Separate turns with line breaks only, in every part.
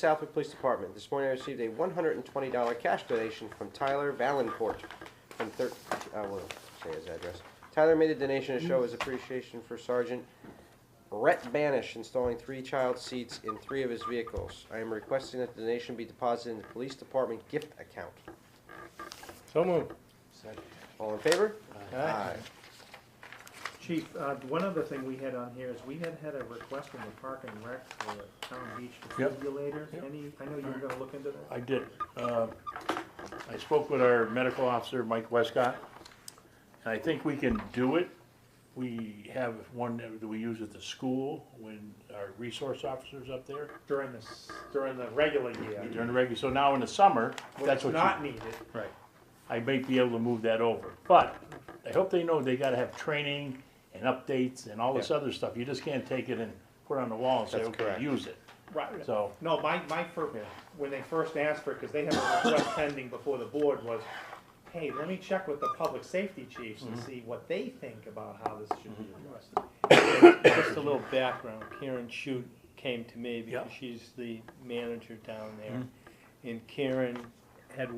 Southwick Police Department. This morning I received a one hundred and twenty dollar cash donation from Tyler Valencourt from thir- I will say his address. Tyler made a donation to show his appreciation for Sergeant Rhett Banish installing three child seats in three of his vehicles. I am requesting that the donation be deposited in the police department gift account.
So moved.
All in favor?
Aye.
Chief, uh, one other thing we had on here is we had had a request from the Park and Rec for a town beach
Yep.
defibrillator.
Yep.
Any, I know you were gonna look into that.
I did. Uh, I spoke with our medical officer, Mike Westcott, and I think we can do it. We have one that we use at the school when our resource officer's up there
During the, s- during the regular year.
during the regular, so now in the summer,
When
that's
it's
what you.
not needed.
Right. I might be able to move that over, but I hope they know they gotta have training and updates and all this other stuff. You just can't take it and put it on the wall and say,
That's
okay,
correct.
use it.
Right.
So-
No, my, my first,
Yeah.
when they first asked for it, because they had a request pending before the board was, hey, let me check with the public safety chiefs
Mm-hmm.
and see what they think about how this should be addressed.
Just a little background, Karen Shute came to me because
Yeah.
she's the manager down there. And Karen had,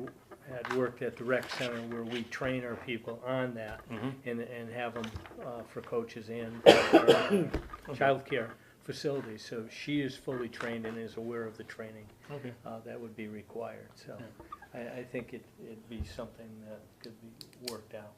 had worked at the rec center where we train our people on that and, and have them, uh, for coaches and for childcare facilities. So she is fully trained and is aware of the training,
Okay.
uh, that would be required, so. I, I think it, it'd be something that could be worked out.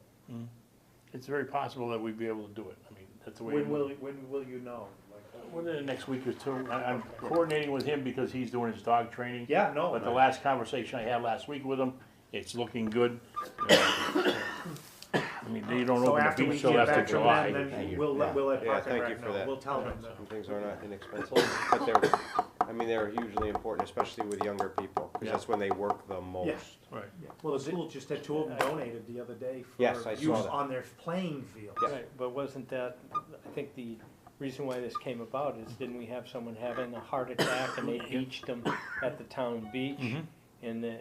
It's very possible that we'd be able to do it. I mean, that's the way.
When will, when will you know? Like,
Within the next week or two, I, I'm coordinating with him because he's doing his dog training.
Yeah, no.
But the last conversation I had last week with him, it's looking good. I mean, they don't
So
open
after
the
we
beach
get
till after
back from
July.
them,
Thank
then
you.
we'll let, we'll let
Yeah,
Park and
thank you
Rec
for
know,
that.
we'll tell them
Some
that.
things are not inexpensive, but they're, I mean, they're hugely important, especially with younger people, because
Yeah.
that's when they work the most.
Right.
Yeah, Well, the school just had two of them donated the other day
Yes,
for
I
use
saw that.
on their playing field.
Yeah.
Right, but wasn't that, I think the reason why this came about is didn't we have someone having a heart attack and they beached them at the town beach?
Mm-hmm.
And the-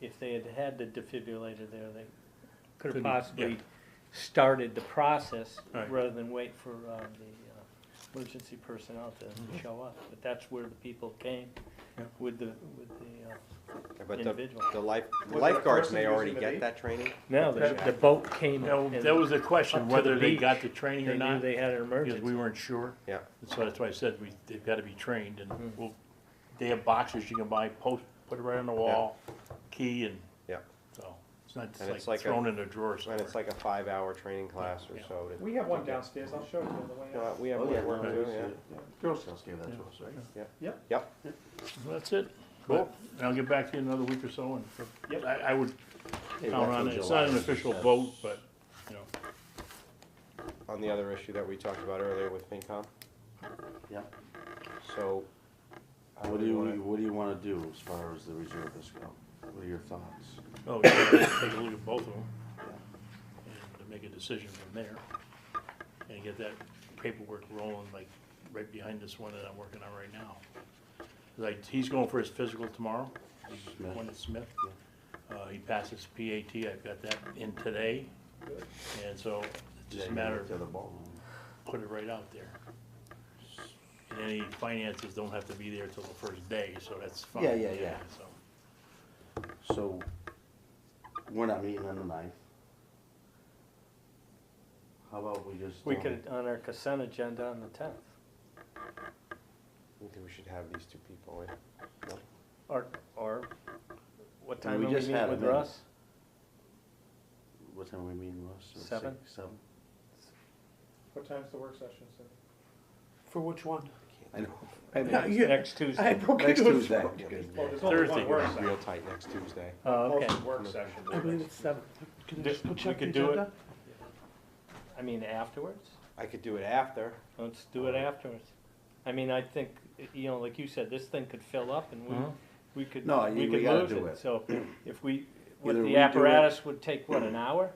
if they had had the defibrillator there, they could have
Couldn't- yeah.
possibly started the process
Right.
rather than wait for uh, the uh, emergency personnel to show up. But that's where the people came
Mm-hmm. Yeah.
with the, with the, uh,
But the,
Individual.
the life,
Was it a
lifeguards
person
may
using
already
the
get
bait?
that training.
no, the the boat came.
Now,
and
that was the question,
Up to
whether
the
they
beach,
got the training or
They knew
not,
they had an
because we
emergency.
weren't sure.
Yeah.
So that's why I said we, they've gotta be trained and we'll, they have boxes you can buy, post, put it right on the wall, key and.
Yeah.
So, it's not
And
just
it's
like
like a-
thrown in a drawer
And
somewhere.
it's like a five-hour training class or so. to-
We have one downstairs, I'll show you on the way
You know,
out.
We have,
Oh,
we
yeah,
have one
yeah,
too,
we see
yeah.
it, yeah. Girl Scouts gave that to us, right?
Yep,
Well, That's it. Cool. I'll get back to you in another week or so and
Yep.
I, I would
Hey,
count
back
on
in
it. It's
July.
not an official vote, but, you know,
on the other issue that we talked about earlier with FinCom,
Yeah.
so. I
What
would
do you,
wanna-
what do you wanna do as far as the reservists go? What are your thoughts?
oh, yeah, take a look at both of them and to make a decision from there. And get that paperwork rolling like right behind this one that I'm working on right now. Like, he's going for his physical tomorrow,
Smith.
one at Smith. Uh, he passes PAT. I've got that in today. And so it's just a matter of
To the ball.
put it right out there. And any finances don't have to be there till the first day, so that's fine.
Yeah, yeah, yeah.
So,
So, we're not meeting on the ninth. How about we just?
We
don't-
could, on our consent agenda on the tenth.
I think we should have these two people in.
Or, or, what
Well,
time
we
are we
just had
meeting
a
with
minute.
Russ?
What time are we meeting, Russ? Or
Seven?
six, Seven.
What time's the work session, Cindy?
For which one?
I know.
Next-
yeah.
Next
I
Tuesday.
broke
Next
into it.
Tuesday.
Well, there's only
Thursday.
one work
Real
session.
tight next Tuesday.
Oh, okay.
Posted work session.
I believe it's seven. Can I
Do-
just go
we
check
could
the
do it.
agenda?
I mean, afterwards?
I could do it after.
Let's do it afterwards. I mean, I think, you know, like you said, this thing could fill up and we, we could,
Uh-huh. No, you-
we
we
could
gotta
lose
do
it.
it.
So if we, what,
Either we
the
do it-
apparatus would take, what, an hour?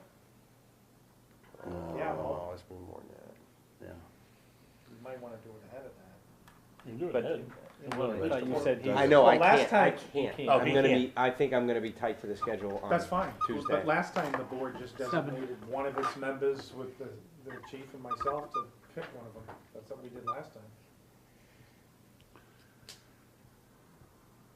No,
Yeah, well,
Oh, it's been more than
yeah.
you might wanna do it ahead of that.
you do
But-
it ahead.
I thought you said he.
that. I know, I
Well, last
can't, I
time-
can't.
He can't.
Oh,
I'm
he
gonna
can't.
be, I think I'm gonna be tight to the schedule on.
That's fine,
Tuesday.
but last time the board just designated one of its members with the, the chief and myself to pick one of them, that's what we did last time.